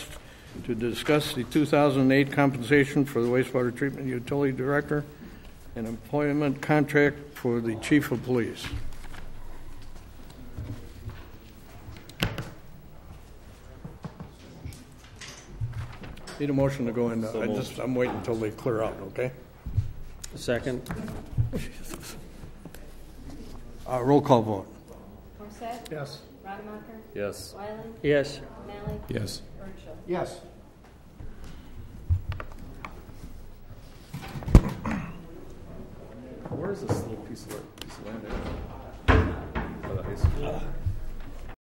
to discuss the 2008 compensation for the wastewater treatment utility director and employment contract for the chief of police. Need a motion to go in. uh, I just, I'm waiting until they clear out, okay? Second. Uh, Roll call vote. Horsett? Yes. Rodemacher? Yes. Wyland? Yes. O'Malley? Yes. Burchell? Yes.